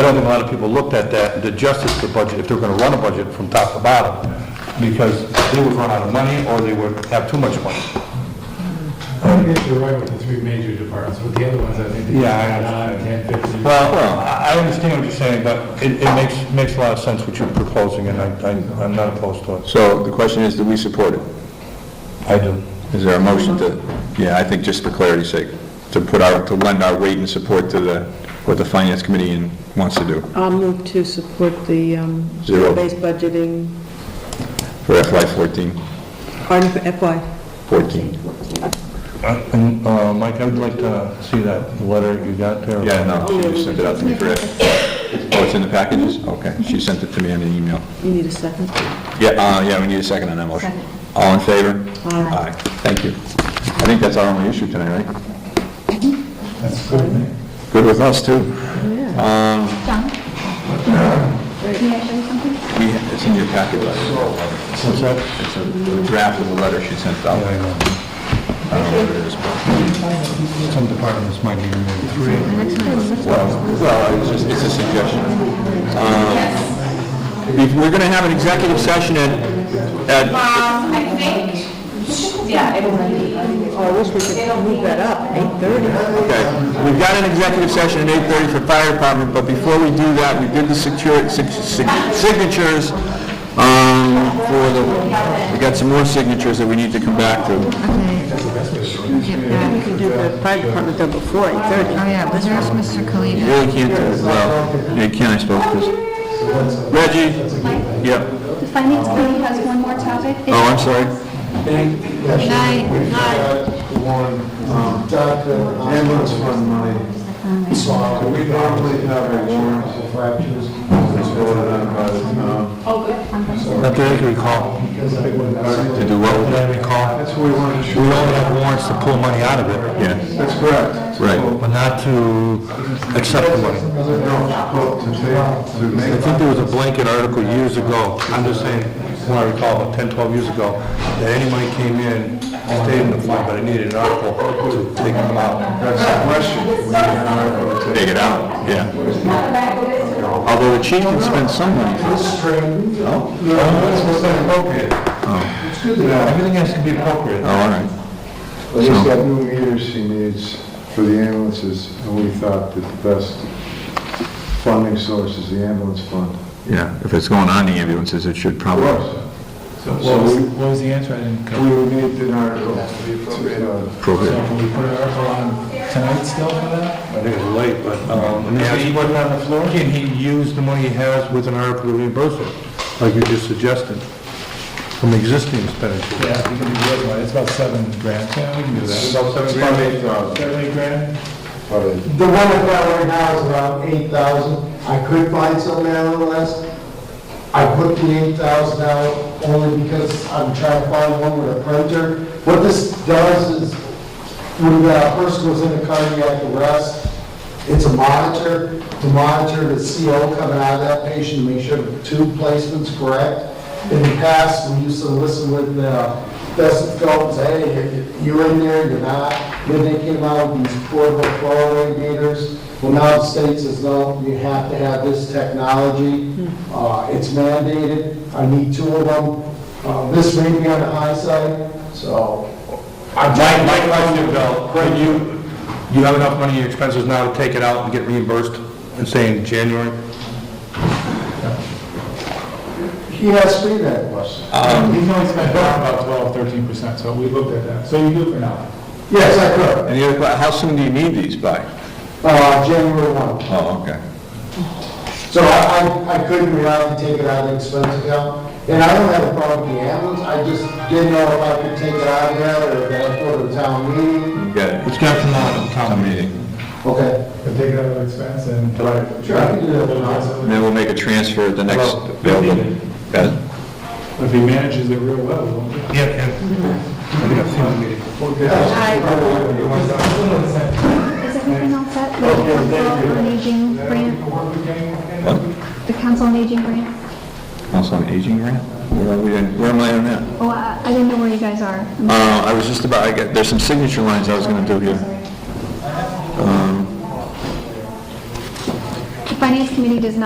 don't think a lot of people looked at that and did justice to the budget, if they're gonna run a budget from top to bottom, because they would run out of money, or they would have too much money. I think you're right with the three major departments, with the other ones, I think. Yeah, I Nine, ten, fifteen. Well, I I understand what you're saying, but it, it makes, makes a lot of sense what you're proposing, and I, I- I'm not opposed to it. So the question is, do we support it? I do. Is there a motion to, yeah, I think just for clarity's sake, to put our, to lend our weight and support to the, what the finance committee in- wants to do I'll move to support the um, Zero. zero-based budgeting, for FY 14, pardon, for FY. 14. Uh, And, uh, Mike, I would like to see that letter you got there. Yeah, no, she just sent it out to me for it. Oh, it's in the packages? Okay, she sent it to me in an email. You need a second? Yeah, uh, yeah, we need a second on that motion. Second. All in favor? Aye. Thank you. I think that's our only issue tonight, right? That's good. Good with us, too. Um, John? Can I show you something? We, it's in your packet, right? What's that? It's a draft of the letter she sent out. Yeah, I know. I don't know what it is. Some departments might even need three. Well, well, it's just, it's a suggestion. Um, if We're gonna have an executive session at, at, Um, I think, yeah, it will be. I wish we could move that up, 8:30. okay, we've got an executive session at eight-thirty for fire department, but before we do that, we did the secure, sig- sig- signatures, um, for the, we got some more signatures that we need to come back to. We can do the fire department though before 8:30. Oh, yeah, was there's Mr. You Kalita. really can't do it, well, you can, I suppose, 'cause- Reggie? Yep. The finance committee has one more topic. Oh, I'm sorry. Night. Night. Warren, um, ambulance fund money. So we normally have a warrant for fractures that's voted on by the town. Not that I can recall. To do what? That I recall. That's what we want to We shoot. only have warrants to pull money out of it, Yeah, That's correct. right. but not to accept the money. No, well, to take, to I make, think there was a blanket article years ago, I'm just saying, when I recall, about 10, 12 years ago, that any money came in, stayed in the fund, but I needed an article to take them out. that's the question. We need an article to Take it out, yeah. Although the chief can spend some money. No, that's what's inappropriate. Everything has to be appropriate. Oh, all right. There's that new meter she needs for the ambulances, and we thought that the best funding source is the ambulance fund. Yeah, if it's going on the ambulances, it should probably. So what was, what was the answer? I didn't We come. would need an article to be appropriate on. So Appropriate. will we put an article on tonight still for that? I think it's late, but, um, Can he use the money he has with an article to reimburse it, like you just suggested, from existing expenditure? Yeah, we can do the other one, it's about seven grand, yeah, we can do that. About seven grand, eight thousand. Seven, eight grand? Probably. The one I've got right now is around eight thousand. I could find something a little less. I put the eight thousand out only because I'm trying to find one with a printer. What this does is, when a person goes into cardiac arrest, it's a monitor to monitor the CO coming out of that patient, make sure the tube placement's correct. In the past, we used to listen with uh, Best Phelps, hey, you're in there, you're not. Then they came out with these portable fluoride meters. Well, now the state says, no, you have to have this technology. Uh, It's mandated. I need two of them. Uh, This may be on the high side, so. My, my question, Bill, Craig, you, you have enough money in your expenses now to take it out and get reimbursed, and say in January? He asked me that question. We've only spent about twelve, thirteen percent, so we looked at that, so you do it for now. Yes, I could. And the other, que- how soon do you need these by? Uh, January 1. Oh, okay. So I, I I couldn't allow to take it out of the expense account. And I don't have a problem with the ambulance, I just didn't know if I could take it out of there or if I go to the town meeting. You got it. It's got to come out of Town town meeting. meeting. Okay. But take it out of expense and. Right. Sure, I can do that. And then we'll make a transfer at the next Hello. available. Got it? If he manages it real well, we won't. Yeah, yeah. I think I've seen the meeting. Is everything all set? The council on aging grant? The council on aging grant? Also an aging grant? Where are we, in- where am I on that? Oh, I I didn't know where you guys are. I'm Uh, I was just about, I got, there's some signature lines I was gonna do here. sorry. The Finance Committee does not